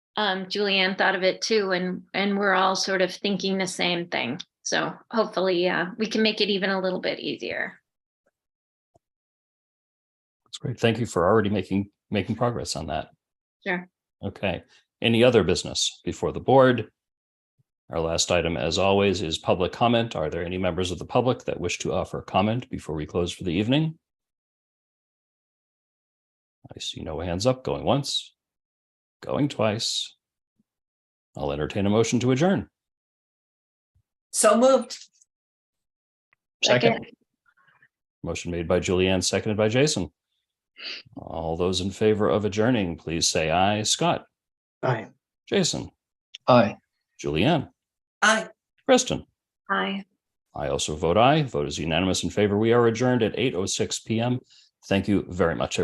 um, Julianne thought of it too, and, and we're all sort of thinking the same thing. So hopefully, uh, we can make it even a little bit easier. That's great. Thank you for already making, making progress on that. Sure. Okay. Any other business before the board? Our last item, as always, is public comment. Are there any members of the public that wish to offer comment before we close for the evening? I see no hands up going once, going twice. I'll entertain a motion to adjourn. So moved. Second. Second. Motion made by Julianne, seconded by Jason. All those in favor of adjourning, please say aye. Scott, Aye. Jason, Aye. Julianne, Aye. Kristen. Hi. I oh also vote aye. Vote is unanimous in favor. We are adjourned at 8:06 PM. Thank you very much. everyone.